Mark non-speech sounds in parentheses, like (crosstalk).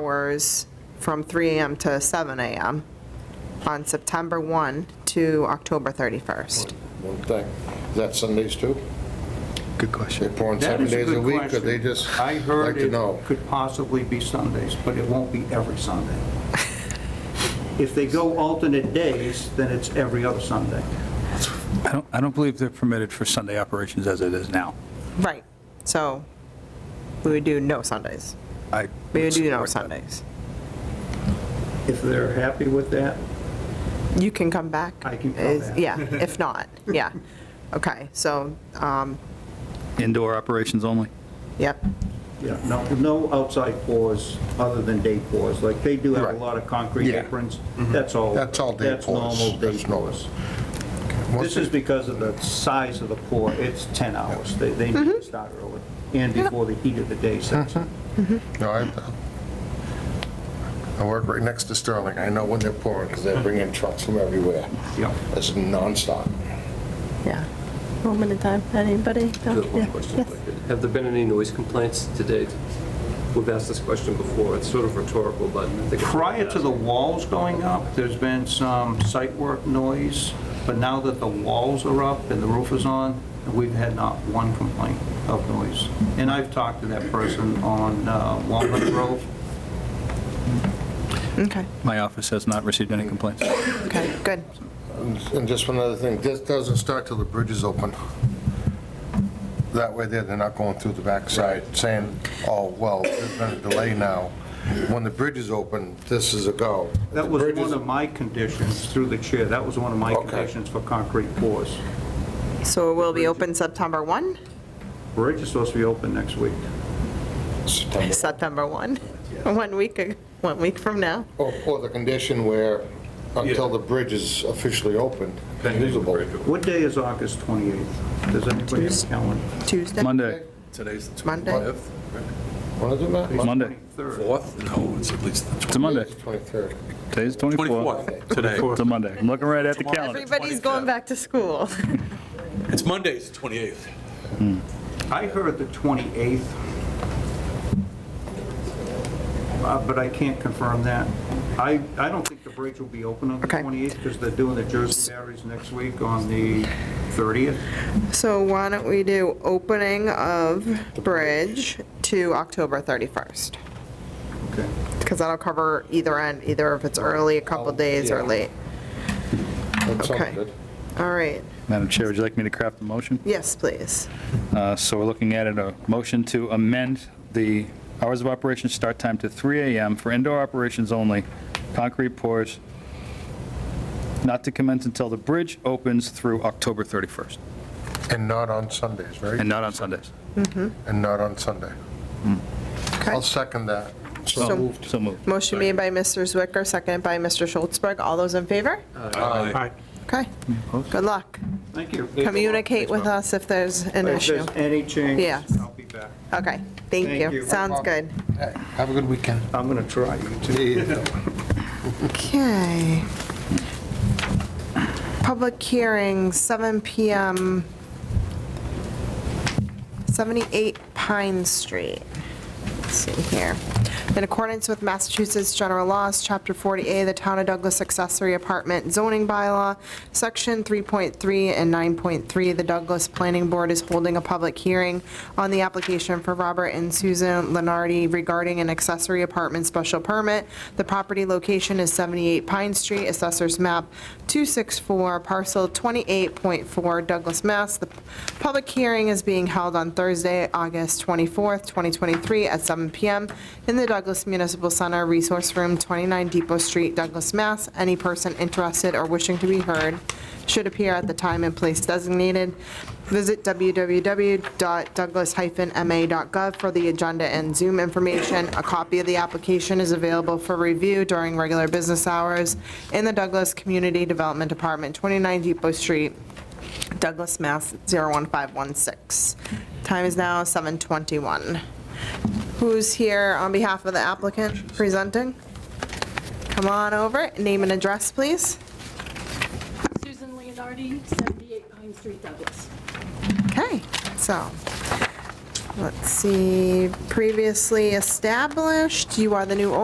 hours from 3 AM to 7 AM on September 1 to October 31st. One thing, is that Sundays too? Good They're question. pouring That seven is a days a good week, or they question. just I like heard to it know? could possibly be Sundays, but it won't be every Sunday. (laughs) If they go alternate days, then it's every other Sunday. I don't, I don't believe they're permitted for Sunday operations as it is now. Right, so we would do no Sundays. I We would do no support that. Sundays. If they're happy with that, You can come back. I can come is- back. Yeah, if not, yeah. Okay, so, um, Indoor operations only? yep, yeah, no, no outside pours other than day pours. Like, they do have a Right. lot of concrete Yeah. aprons, that's all. Mm-hmm. That's all day That's pours. normal day That's normal. pours. Once This is because of the size of the pour, it's 10 hours. They, they need Mm-hmm. to start early, and before the heat of the day sets in. No, I, I work right next to Sterling, I know when they're pouring, because they bring in trucks from everywhere. Yeah. It's nonstop. yeah. Moment in time, anybody? No? Just Yeah. one question, Yes. if I could. Have there been any noise complaints to date? We've asked this question before, it's sort of rhetorical, but I think. it's worth Prior to the asking. walls going up, there's been some site work noise, but now that the walls are up and the roof is on, we've had not one complaint of noise. And I've talked to that person on uh, Walnut Grove. Okay, My office has not received any complaints. okay, good. And just one other thing, this doesn't start till the bridge is open. That way there, they're not going through the backside saying, oh, well, there's been a delay now. When the bridge is open, this is a go. That The was bridge is- one of my conditions, through the chair, that was one of my Okay. conditions for concrete pours. So it will be open September 1? Bridge is supposed to be open next week. September. September 1, one week, ag- one week from now. Or, or the condition where, until the bridge is officially opened, usable. What day is August 28th? Does anybody have a calendar? Tuesday? Monday, Today's the Monday. 25th, When is it, Matt? Monday. 23rd. 4th? No, it's at least the it's a Monday. It's 23rd. Today's 24th. 24th, today. It's a Monday. I'm looking right at the calendar. Everybody's going back to school. It's Monday's 28th. I heard the 28th, Uh, but I can't confirm that. I, I don't think the bridge will be open on the Okay. 28th because they're doing the Jersey Barriers next week on the 30th. So why don't we do opening of bridge to October 31st? Okay. Because that'll cover either end, either if it's early, a couple days, or Oh, yeah. late. That sounds Okay. good. All right, Madam Chair, would you like me to craft a motion? yes, please. Uh, So we're looking at it, a motion to amend the hours of operation start time to 3 AM for indoor operations only, concrete pours, not to commence until the bridge opens through October 31st, And not on Sundays, right? and not on Sundays. And not on Sunday. Okay. I'll second that. So- So moved. So moved. Motion made by Mr. Zwicker, seconded by Mr. Schultzberg. All those in favor? Okay, good luck. Thank you. Communicate with us if there's an If issue. there's any change, Yes. I'll be back. Okay, thank Thank you. you. Sounds good. Have a good weekend. I'm going to try. You too. Okay. Public hearing, 7 PM, 78 Pine Street. Let's see here. In accordance with Massachusetts General Laws, Chapter 40A, the Town of Douglas Accessory Apartment Zoning Bylaw, Section 3.3 and 9.3, the Douglas Planning Board is holding a public hearing on the application for Robert and Susan Lenardi regarding an accessory apartment special permit. The property location is 78 Pine Street, Assessors Map 264, Parcel 28.4, Douglas, Mass. The public hearing is being held on Thursday, August 24th, 2023, at 7 PM in the Douglas Municipal Center Resource Room, 29 Depot Street, Douglas, Mass. Any person interested or wishing to be heard should appear at the time and place designated. Visit www.douglas-ma.gov for the agenda and Zoom information. A copy of the application is available for review during regular business hours in the Douglas Community Development Department, 29 Depot Street, Douglas, Mass. 01516. Time is now 7:21. Who's here on behalf of the applicant presenting? Come on over, name and address, please. Susan Leonardi, 78 Pine Street, Douglas. Okay, so, Let's see, previously established, you are the new